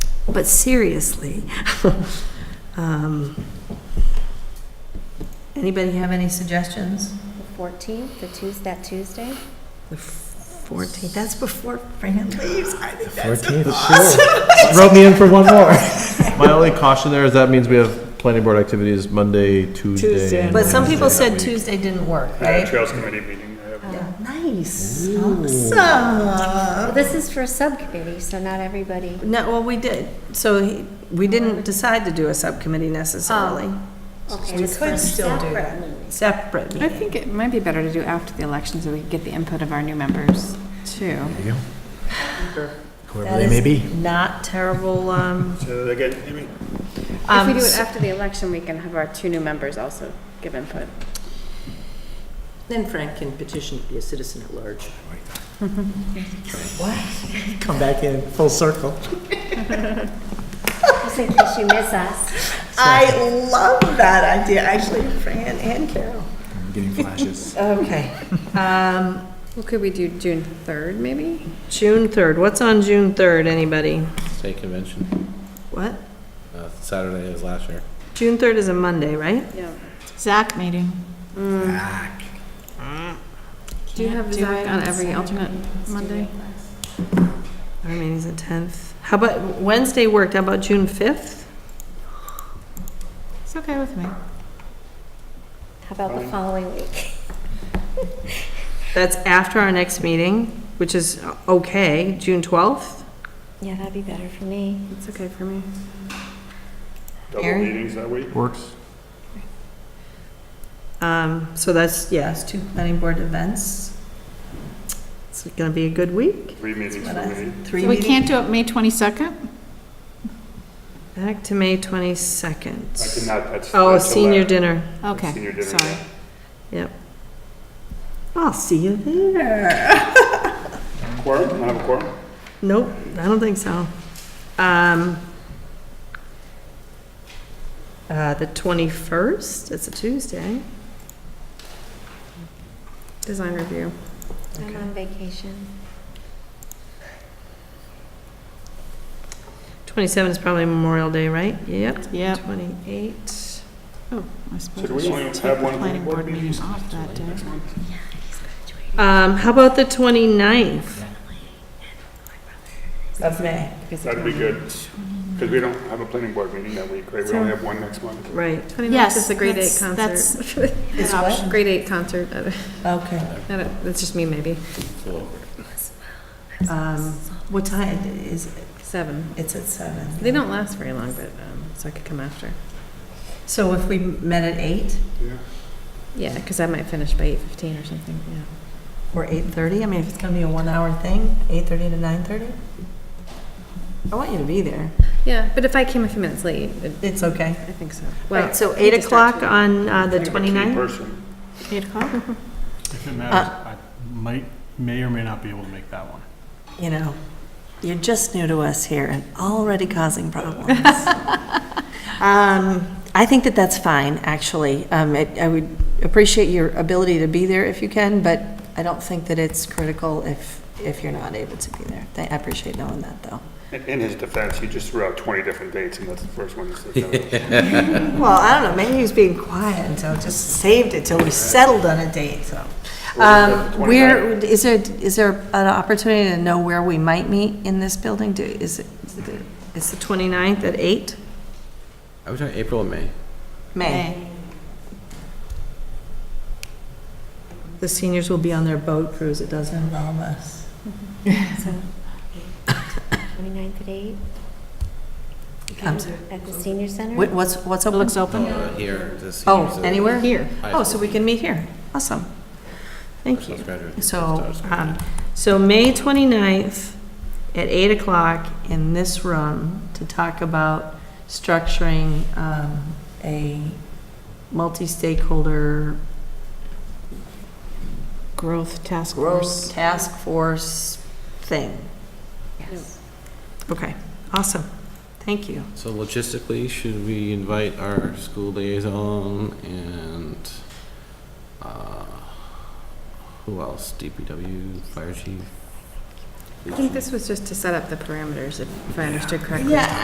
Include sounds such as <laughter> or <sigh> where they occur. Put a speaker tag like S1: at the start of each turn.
S1: but seriously. Um, Anybody have any suggestions?
S2: The fourteenth, the Tuesday, that Tuesday?
S1: The 14th, that's before Fran leaves. I think that's-
S3: Fourteenth, sure. Rub me in for one more.
S4: My only caution there is that means we have planning board activities Monday, Tuesday.
S3: Tuesday.
S4: and
S1: But some people
S4: Wednesday
S1: said
S4: that week.
S1: Tuesday didn't work,
S5: Yeah,
S1: right?
S5: Trails Committee meeting. I have-
S1: Nice, awesome.
S2: Well, this is for a subcommittee, so not everybody.
S1: No, well, we did. So he- we didn't decide to do a subcommittee necessarily.
S2: Okay,
S1: We
S2: this is for
S1: could
S2: a
S1: still do
S2: separate
S1: that.
S2: meeting.
S1: Separate
S6: I
S1: meeting.
S6: think it might be better to do after the election so we can get the input of our new members too.
S3: Whoever
S1: That
S3: they
S1: is
S3: may be.
S1: Not terrible, um,
S5: So again, I mean,
S6: If we
S1: um,
S6: do it
S1: s-
S6: after the election, we can have our two new members also give input.
S7: Then Frank can petition to be a citizen at large.
S3: Come back in full circle.
S2: Just in case you miss us.
S1: I love that idea, actually, Fran and Carol.
S3: I'm getting flashes.
S1: <laughs> Okay. Um,
S6: Well, could we do June 3rd, maybe?
S1: June 3rd, what's on June 3rd, anybody?
S8: State convention,
S1: What?
S8: uh, Saturday is last year.
S1: June 3rd is a Monday, right?
S6: Yeah.
S9: Zach meeting.
S3: Back.
S6: Do you have Zach on every alternate Monday?
S1: Our meeting's the 10th. How about, Wednesday worked, how about June 5th?
S9: It's okay with me.
S2: How about the following week?
S1: That's after our next meeting, which is okay, June 12th?
S2: Yeah, that'd be better for me.
S6: It's okay for me.
S5: double
S1: Aaron?
S5: meetings that week.
S4: Works.
S1: Um, so that's, yes, two planning board events. It's gonna be a good week.
S5: Three meetings
S1: What
S5: for
S1: else?
S5: me.
S1: Three
S9: So we
S1: meetings.
S9: can't do it May 22nd?
S1: Back to May
S5: I
S1: 22nd.
S5: cannot, that's.
S1: Oh,
S5: that's
S1: senior
S5: allowed.
S1: dinner.
S5: Senior
S9: Okay,
S5: dinner,
S9: sorry.
S5: yeah.
S1: I'll see you there.
S5: Quorum, I have a quorum.
S1: Nope, I don't think so. Um, uh, the 21st, it's a Tuesday.
S6: Design review.
S2: I'm on vacation.
S1: 27 is probably Memorial Day, right? Yep.
S9: Yep.
S1: 28.
S9: I
S5: So
S9: suppose
S5: do
S9: we
S5: we only
S9: should
S5: have
S9: take the
S5: one
S9: planning
S5: board
S9: board meeting
S5: meeting?
S9: off that day.
S1: Um, how about the 29th? Of May.
S5: That'd be good. Because we don't have a planning board meeting that week, right? We only have one next month.
S1: Right.
S6: 29th is the grade eight
S9: that's-
S6: concert.
S9: That's
S1: Is
S9: an
S1: what?
S6: <laughs>
S9: option.
S6: Grade eight concert. I
S1: Okay.
S6: don't- That's just me, maybe.
S8: So
S1: Um, what time is it?
S6: Seven.
S1: It's at seven.
S6: They don't last very long, but, um, so I could come after.
S1: So if we met at eight
S5: Yeah.
S6: Yeah, because I might finish by 8:15 or something, yeah.
S1: or eight thirty, I mean, if it's gonna be a one-hour thing, eight thirty to nine thirty? I want you to be there.
S6: Yeah, but if I came a few minutes late, it-
S1: It's okay.
S6: I think so.
S1: Right, so
S6: I
S1: eight
S6: could start
S1: o'clock on uh, the
S5: I'm a key
S1: 29th?
S5: person.
S9: 8 o'clock?
S10: If it matters,
S1: Uh,
S10: I might, may or may not be able to make that one.
S1: You know, you're just new to us here and already causing <laughs> problems. Um, I think that that's fine, actually. Um, it- I would appreciate your ability to be there if you can, but I don't think that it's critical if, if you're not able to be there. I appreciate knowing that, though.
S5: In in his defense, he just threw out 20 different dates, and that's the first one he said.
S1: Well, I don't know, maybe he was being quiet until, just saved it till we settled on a date, so.
S5: Well,
S1: Um,
S5: the
S1: Where,
S5: 29th.
S1: is there, is there an opportunity to know where we might meet in this building? Do, is it, it's the 29th at 8?
S8: I was talking April and May.
S1: May. The seniors will be on their boat cruise, it doesn't involve us.
S2: Twenty-ninth at eight?
S1: I'm sorry.
S2: At the senior center?
S1: What- What's, what's open?
S9: Looks open?
S8: Uh, Here, this.
S1: Oh,
S8: here's the
S1: anywhere? Here.
S8: high
S1: Oh, so
S8: school
S1: we can meet here, awesome. Thank you.
S8: first graduate.
S1: So,
S8: Stars.
S1: um, so May 29th at 8 o'clock in this room to talk about structuring, um, a multi-stakeholder
S9: Growth Task
S1: growth
S9: Force.
S1: task force thing. Yes. Okay, awesome. Thank you.
S8: So logistically, should we invite our school liaison and, uh, who else? DPW, fire chief?
S6: I think this was just to set up the parameters, if I understood correctly.
S1: Yeah,